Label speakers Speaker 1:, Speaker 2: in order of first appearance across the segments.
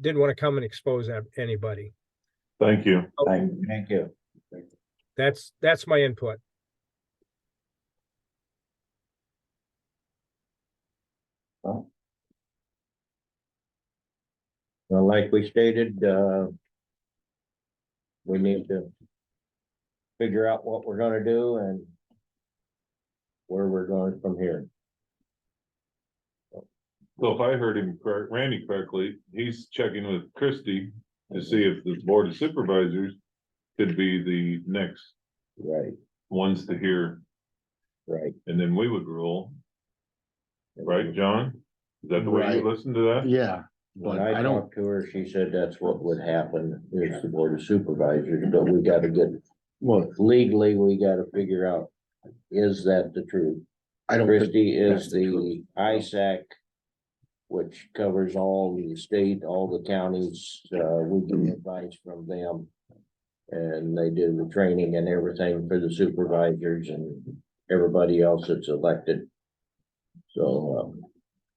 Speaker 1: didn't want to come and expose ab- anybody.
Speaker 2: Thank you.
Speaker 3: Thank, thank you.
Speaker 1: That's, that's my input.
Speaker 3: Well, like we stated, uh. We need to. Figure out what we're gonna do and. Where we're going from here.
Speaker 2: So if I heard him, correct- Randy correctly, he's checking with Christie to see if the board of supervisors could be the next
Speaker 3: Right,
Speaker 2: ones to hear,
Speaker 3: right.
Speaker 2: and then we would rule, right, John? Is that the way you
Speaker 4: Right.
Speaker 2: listen to that?
Speaker 4: Yeah,
Speaker 3: When
Speaker 4: But
Speaker 3: I
Speaker 4: I don't-
Speaker 3: talked to her, she said that's what would happen, is the board of supervisors, but we gotta get,
Speaker 4: well,
Speaker 3: legally, we gotta figure out. Is that the truth?
Speaker 4: I don't, think-
Speaker 3: Christie is
Speaker 4: that's true.
Speaker 3: the ISAC. Which covers all the state, all the counties, uh, we
Speaker 4: Mm-hmm.
Speaker 3: get advice from them. And they do the training and everything for the supervisors and everybody else that's elected. So, um,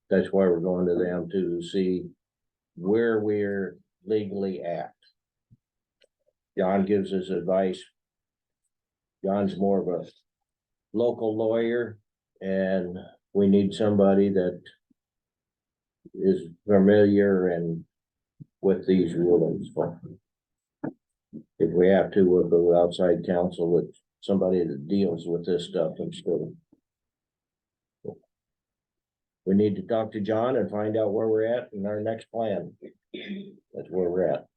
Speaker 3: that's why we're going to them to see where we're legally at. John gives us advice. John's more of a local lawyer. And we need somebody that is familiar and with these rulings. But If we have to, we'll go outside counsel with somebody that deals with this stuff instead. of- We need to talk to John and find out where we're at in our next plan. That's where we're at.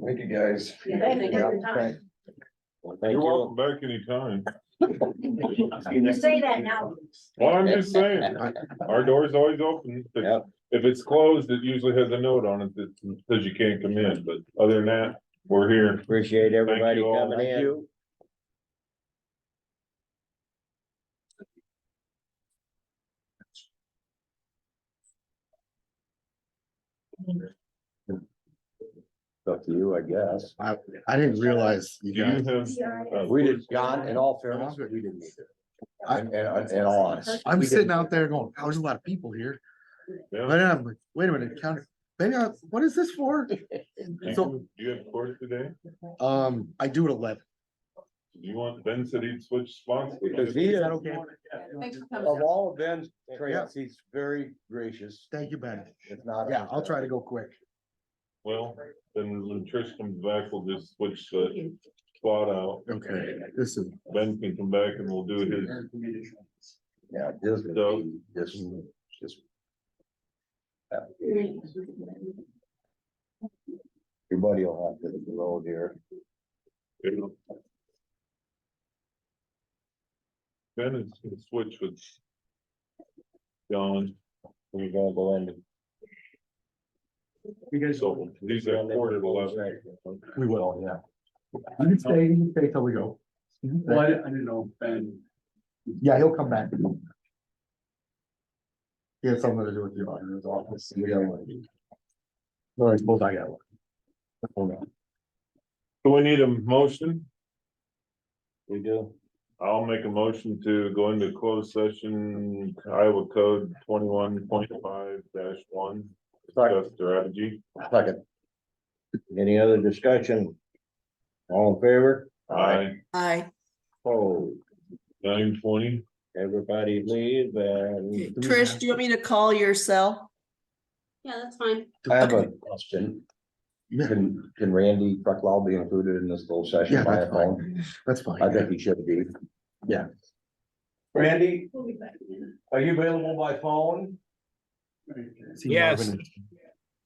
Speaker 5: Thank you, guys.
Speaker 6: Yeah, thank you for your time.
Speaker 3: Well, Thank
Speaker 2: You're welcome
Speaker 3: you.
Speaker 2: back anytime.
Speaker 6: You say that now.
Speaker 2: Well, I'm just saying, our door's always open. If
Speaker 3: Yep.
Speaker 2: if it's closed, it usually has a note on it that says you can't come in, but other than that, we're here.
Speaker 3: Appreciate everybody
Speaker 2: you all.
Speaker 3: coming
Speaker 2: Thank
Speaker 3: in. Up to you, I guess.
Speaker 4: I, I didn't realize
Speaker 2: Do
Speaker 4: you
Speaker 2: you
Speaker 4: guys,
Speaker 2: have? uh,
Speaker 3: We did, John, in all
Speaker 4: fairness,
Speaker 3: fairness,
Speaker 4: we
Speaker 3: we didn't either.
Speaker 4: I-
Speaker 3: And, and, and honest.
Speaker 4: I'm sitting out there going, oh, there's a lot of people here.
Speaker 2: yeah.
Speaker 4: But then I'm like, wait a minute, county, maybe I, what is this for?
Speaker 2: Do you-
Speaker 4: So,
Speaker 2: Do you have court today?
Speaker 4: um, I do it eleven.
Speaker 2: Do you want Ben said he'd switch spots?
Speaker 5: Because he
Speaker 4: Is
Speaker 5: is,
Speaker 4: that
Speaker 5: of
Speaker 4: okay?
Speaker 6: Thanks for coming.
Speaker 5: all of Ben's traits, he's very gracious.
Speaker 4: Thank you, Ben.
Speaker 5: If not.
Speaker 4: Yeah, I'll try to go quick.
Speaker 2: Well, then when Trish comes back, we'll just switch the spot out.
Speaker 4: Okay, this is,
Speaker 2: Ben can come back and we'll do his,
Speaker 3: Yeah, this would
Speaker 2: So-
Speaker 3: be just, just, everybody will have to roll here.
Speaker 2: Ben is gonna switch with John,
Speaker 3: We're gonna go into.
Speaker 2: so he's at quarter to eleven.
Speaker 4: we will, yeah. You can stay, you can stay till we go.
Speaker 7: Well, I didn't, I didn't know, Ben,
Speaker 4: Yeah, he'll come back. He has something to do with the auditor's office. We got one. No, I suppose I got one. Hold on.
Speaker 2: So we need a motion.
Speaker 3: We do.
Speaker 2: I'll make a motion to go into closed session Iowa Code twenty-one point five dash one. Discuss strategy.
Speaker 3: Second. Any other discussion? All in favor?
Speaker 2: Aye,
Speaker 6: Hi.
Speaker 3: Oh,
Speaker 2: nine twenty.
Speaker 3: everybody leave and.
Speaker 8: Trish, do you want me to call your cell?
Speaker 6: Yeah, that's fine.
Speaker 4: Uh,
Speaker 3: I have a question. Can, can Randy Bucklaw be included in this little
Speaker 4: Yeah,
Speaker 3: session by
Speaker 4: that's fine.
Speaker 3: phone?
Speaker 4: That's fine.
Speaker 3: I think he should be.
Speaker 5: Randy,
Speaker 6: We'll be back in
Speaker 5: are you available by phone?
Speaker 4: See
Speaker 1: Yes.
Speaker 4: Marvin.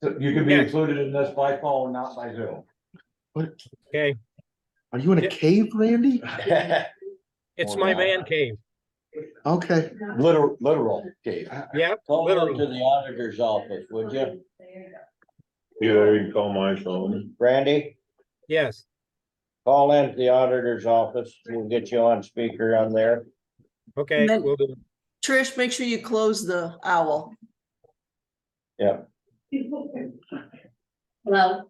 Speaker 5: So You can be
Speaker 1: Yes.
Speaker 5: included in this by phone, not by Zoom.
Speaker 1: Okay,
Speaker 4: Are you in a
Speaker 1: Yeah.
Speaker 4: cave, Randy?
Speaker 1: it's my man cave.
Speaker 4: Okay.
Speaker 6: a minute.
Speaker 3: Literal, literal, Dave.
Speaker 1: Yeah,
Speaker 3: Call
Speaker 1: Literal.
Speaker 3: over to the auditor's office, would you?
Speaker 6: There you go.
Speaker 2: Yeah, there you can call my phone.
Speaker 3: Randy,
Speaker 1: yes.
Speaker 3: call into the auditor's office. We'll get you on speaker on there.
Speaker 1: Okay,
Speaker 8: And then-
Speaker 1: we'll do.
Speaker 8: Trish, make sure you close the owl.
Speaker 6: Hello?